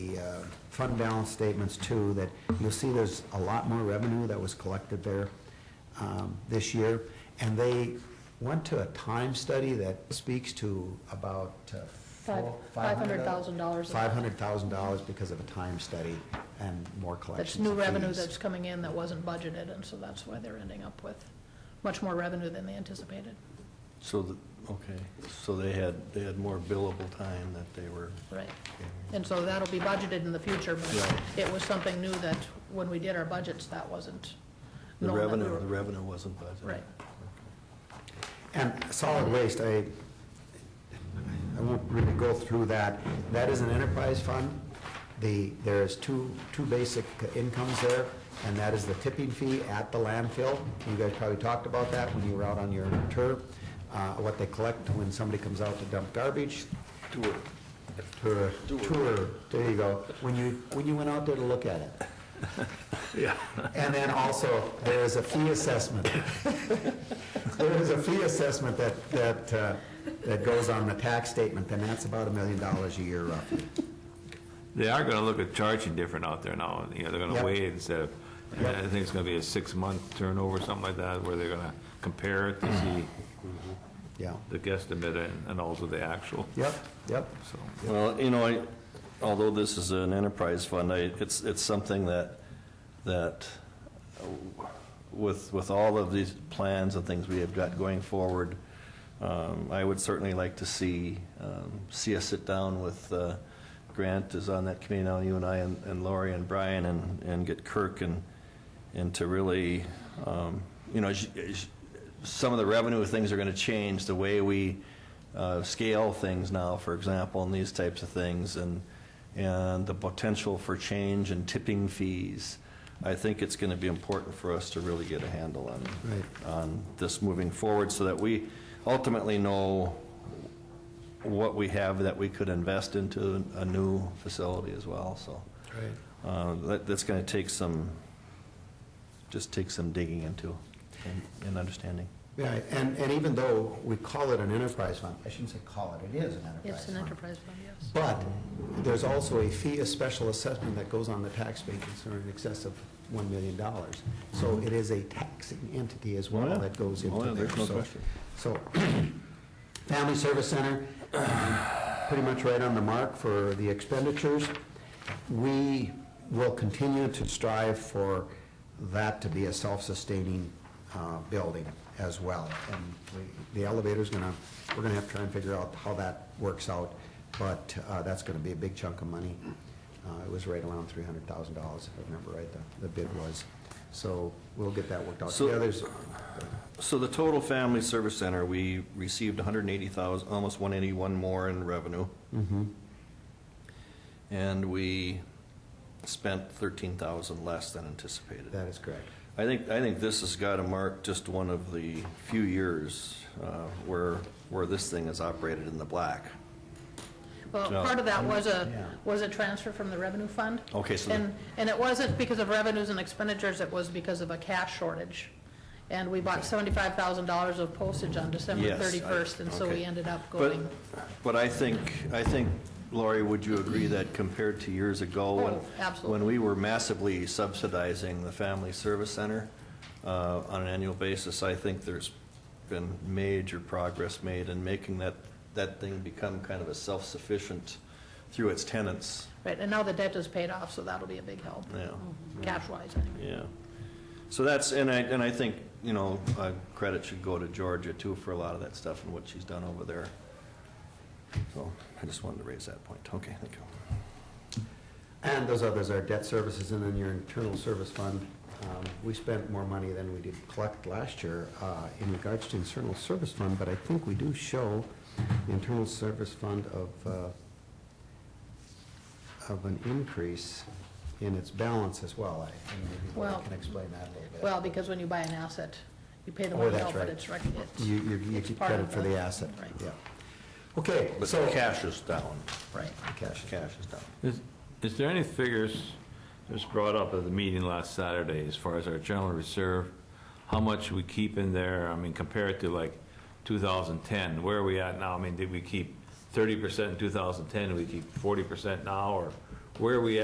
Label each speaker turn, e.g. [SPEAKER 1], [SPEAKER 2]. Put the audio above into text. [SPEAKER 1] uh, fund balance statements too, that you'll see there's a lot more revenue that was collected there um, this year. And they went to a time study that speaks to about uh,
[SPEAKER 2] Five-
[SPEAKER 1] four-
[SPEAKER 2] $500,000.
[SPEAKER 1] $500,000 because of a time study and more collections.
[SPEAKER 2] That's new
[SPEAKER 1] of
[SPEAKER 2] revenue
[SPEAKER 1] fees.
[SPEAKER 2] that's coming in that wasn't budgeted, and so that's why they're ending up with much more revenue than they anticipated,
[SPEAKER 3] So, the- okay, so they had, they had more billable time that they were,
[SPEAKER 2] right? And so that'll be budgeted in the future, but
[SPEAKER 3] Right.
[SPEAKER 2] it was something new that, when we did our budgets, that wasn't
[SPEAKER 3] the
[SPEAKER 2] known that we
[SPEAKER 3] revenue,
[SPEAKER 2] were-
[SPEAKER 3] the revenue wasn't budgeted.
[SPEAKER 2] Right.
[SPEAKER 1] And solid waste, I, I won't really go through that. That is an enterprise fund. The, there's two, two basic incomes there, and that is the tipping fee at the landfill. You guys probably talked about that when you were out on your tour, uh, what they collect when somebody comes out to dump garbage.
[SPEAKER 3] Tour.
[SPEAKER 1] Tour, tour, there you go. When you, when you went out there to look at it.
[SPEAKER 3] Yeah.
[SPEAKER 1] And then also, there is a fee assessment. There is a fee assessment that, that, uh, that goes on the tax statement, and that's about a million dollars a year roughly.
[SPEAKER 4] They are gonna look at charging different out there now, you know, they're
[SPEAKER 1] Yeah.
[SPEAKER 4] gonna weigh it instead of,
[SPEAKER 1] Yeah.
[SPEAKER 4] I think it's gonna be a six-month turnover, something like that, where they're gonna compare it to
[SPEAKER 1] Mm-hmm.
[SPEAKER 4] see
[SPEAKER 1] Yeah,
[SPEAKER 4] the guesstimate and- and also the actual,
[SPEAKER 1] yep, yep,
[SPEAKER 4] so.
[SPEAKER 3] Well, you know, I, although this is an enterprise fund, I, it's, it's something that, that uh, with, with all of these plans and things we have got going forward, um, I would certainly like to see, um, see us sit down with, uh, Grant is on that committee now, you and I and and Lori and Brian and, and get Kirk and, and to really, um, you know, as you- as you- some of the revenue things are going to change, the way we uh, scale things now, for example, and these types of things, and, and the potential for change and tipping fees. I think it's going to be important for us to really get a handle on,
[SPEAKER 1] right.
[SPEAKER 3] on this moving forward, so that we ultimately know what we have that we could invest into a new facility as well, so.
[SPEAKER 1] Right.
[SPEAKER 3] Uh, that- That's going to take some, just take some digging into and- and understanding.
[SPEAKER 1] Yeah, and, and even though we call it an enterprise fund, I shouldn't say call it, it is an enterprise fund.
[SPEAKER 2] It's an enterprise fund, yes.
[SPEAKER 1] But there's also a fee, a special assessment that goes on the tax base concern in excess of $1 million. So it is a taxing entity as
[SPEAKER 3] Mm-hmm. Oh, yeah.
[SPEAKER 1] well that goes into
[SPEAKER 3] Oh,
[SPEAKER 1] there.
[SPEAKER 3] yeah, there's no
[SPEAKER 1] So-
[SPEAKER 3] question.
[SPEAKER 1] So, Family Service Center, um, pretty much right on the mark for the expenditures. We will continue to strive for that to be a self-sustaining uh, building as well. And we- the elevator's gonna, we're gonna have to try and figure out how that works out, but uh, that's gonna be a big chunk of money. Uh, It was right around three hundred thousand dollars, if I remember right, the- the bid was. So we'll get that worked out.
[SPEAKER 3] So-
[SPEAKER 1] The others,
[SPEAKER 3] So the total family service center, we received 180,000, almost 181 more in revenue,
[SPEAKER 1] mhm,
[SPEAKER 3] and we spent 13,000 less than anticipated.
[SPEAKER 1] that is correct.
[SPEAKER 3] I think, I think this has got to mark just one of the few years uh, where, where this thing is operated in the black.
[SPEAKER 2] Well,
[SPEAKER 3] No.
[SPEAKER 2] part of that was
[SPEAKER 1] Yeah.
[SPEAKER 2] a, was a transfer from the revenue fund.
[SPEAKER 3] Okay, so the-
[SPEAKER 2] And, and it wasn't because of revenues and expenditures, it was because of a cash shortage. And we bought seventy-five thousand dollars of postage on December
[SPEAKER 3] Yes, I-
[SPEAKER 2] thirty-first, and so we
[SPEAKER 3] okay.
[SPEAKER 2] ended up
[SPEAKER 3] But,
[SPEAKER 2] going.
[SPEAKER 3] but I think, I think, Lori, would you agree that compared to years ago, when,
[SPEAKER 2] Oh, absolutely.
[SPEAKER 3] when we were massively subsidizing the Family Service Center uh, on an annual basis, I think there's been major progress made in making that, that thing become kind of a self-sufficient through its tenants,
[SPEAKER 2] Right, and now the debt is paid off, so that'll be a big help,
[SPEAKER 3] yeah.
[SPEAKER 2] cash-wise, anyway.
[SPEAKER 3] Yeah. So that's, and I, and I think, you know, uh, credit should go to Georgia too for a lot of that stuff and what she's done over there. So I just wanted to raise that point. Okay, thank you.
[SPEAKER 1] And those others are debt services and then your internal service fund. Um, We spent more money than we did collect last year uh, in regards to internal service fund, but I think we do show the internal service fund of, uh, of an increase in its balance as well. I- and maybe Lori
[SPEAKER 2] Well-
[SPEAKER 1] can explain that a little bit.
[SPEAKER 2] Well, because when you buy an asset, you pay the
[SPEAKER 1] Oh,
[SPEAKER 2] money
[SPEAKER 1] that's
[SPEAKER 2] out,
[SPEAKER 1] right.
[SPEAKER 2] but it's, rec- it's.
[SPEAKER 1] You, you- you
[SPEAKER 2] it's
[SPEAKER 1] get
[SPEAKER 2] part of
[SPEAKER 1] credit for the asset,
[SPEAKER 2] Right,
[SPEAKER 1] yeah. Okay,
[SPEAKER 3] But
[SPEAKER 1] so.
[SPEAKER 3] cash is down.
[SPEAKER 2] right.
[SPEAKER 1] Cash.
[SPEAKER 3] Cash is down.
[SPEAKER 4] Is, is there any figures that was brought up at the meeting last Saturday as far as our general reserve? How much we keep in there, I mean, compared to like 2010, where are we at now? I mean, did we keep 30% in 2010, do we keep 40% now, or where are we at?